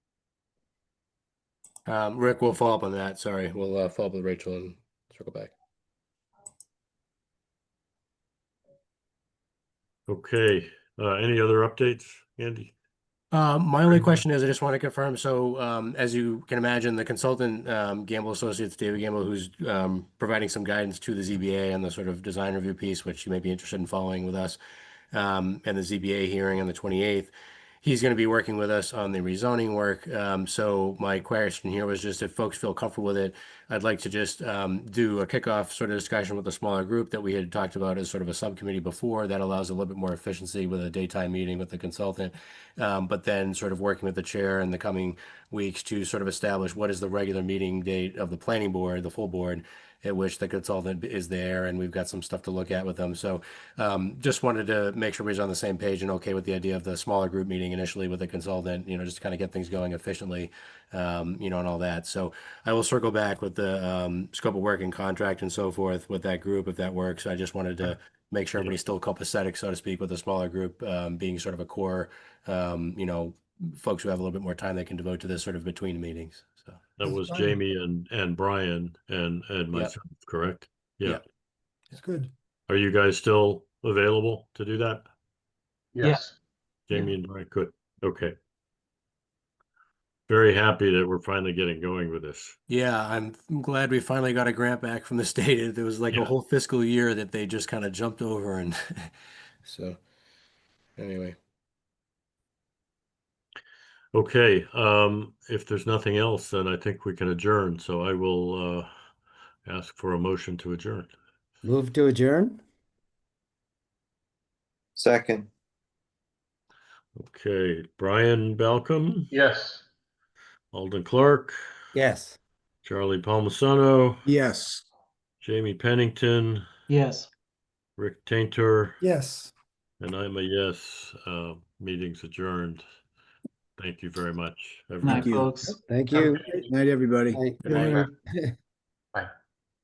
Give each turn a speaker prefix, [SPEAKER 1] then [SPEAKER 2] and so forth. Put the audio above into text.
[SPEAKER 1] Um, Rick, we'll follow up on that. Sorry, we'll uh, follow up with Rachel and circle back.
[SPEAKER 2] Okay, uh, any other updates, Andy?
[SPEAKER 1] Um, my only
[SPEAKER 2] Okay.
[SPEAKER 1] question is, I just want to confirm, so, um, as you can imagine, the consultant, um, Gamble Associates, David Gamble, who's, um, providing some guidance to the ZBA on the sort of design review piece, which you may be interested in following with us, um, and the ZBA hearing on the twenty-eighth. He's going to be working with us on the rezoning work. Um, so my question here was just if folks feel comfortable with it, I'd like to just, um, do a kickoff sort of discussion with a smaller group that we had talked about as sort of a subcommittee before. That allows a little bit more efficiency with a daytime meeting with the consultant um, but then sort of working with the chair in the coming weeks to sort of establish what is the regular meeting date of the planning board, the full board, at which the consultant is there, and we've got some stuff to look at with them. So um, just wanted to make sure we was on the same page and okay with the idea of the smaller group meeting initially with the consultant, you know, just to kind of get things going efficiently, um, you know, and all that. So I will circle back with the um, scope of work and contract and so forth with that group if that works. I just wanted to make sure everybody's still copacetic, so to speak, with a smaller group um, being sort of a core um, you know, folks who have a little bit more time they can devote to this sort of between meetings. So,
[SPEAKER 2] That
[SPEAKER 3] That's
[SPEAKER 2] was
[SPEAKER 3] fine.
[SPEAKER 2] Jamie and, and Brian and, and myself, correct? Yeah.
[SPEAKER 1] Yep.
[SPEAKER 3] It's good.
[SPEAKER 2] Are you guys still available to do that?
[SPEAKER 4] Yeah.
[SPEAKER 5] Yes.
[SPEAKER 2] Jamie and Brian, good, okay. Very happy that we're finally getting going with this.
[SPEAKER 1] yeah, I'm I'm glad we finally got a grant back from the state. It- There was like
[SPEAKER 2] Yeah.
[SPEAKER 1] a whole fiscal year that they just kind of jumped over and so anyway,
[SPEAKER 2] Okay, um, if there's nothing else, then I think we can adjourn, so I will, uh, ask for a motion to adjourn.
[SPEAKER 3] Move to adjourn?
[SPEAKER 4] Second,
[SPEAKER 2] Okay, Brian Balcom,
[SPEAKER 5] Yes.
[SPEAKER 2] Alden Clark,
[SPEAKER 3] Yes.
[SPEAKER 2] Charlie Palmisano,
[SPEAKER 6] Yes.
[SPEAKER 2] Jamie Pennington,
[SPEAKER 5] Yes.
[SPEAKER 2] Rick Tainter,
[SPEAKER 3] Yes.
[SPEAKER 2] and I'm a yes. Uh, meeting's adjourned. Thank you very much.
[SPEAKER 5] Night,
[SPEAKER 2] everybody.
[SPEAKER 6] you.
[SPEAKER 5] folks.
[SPEAKER 3] Thank you.
[SPEAKER 6] Night, everybody.
[SPEAKER 3] Bye.
[SPEAKER 5] Good night.
[SPEAKER 4] Bye.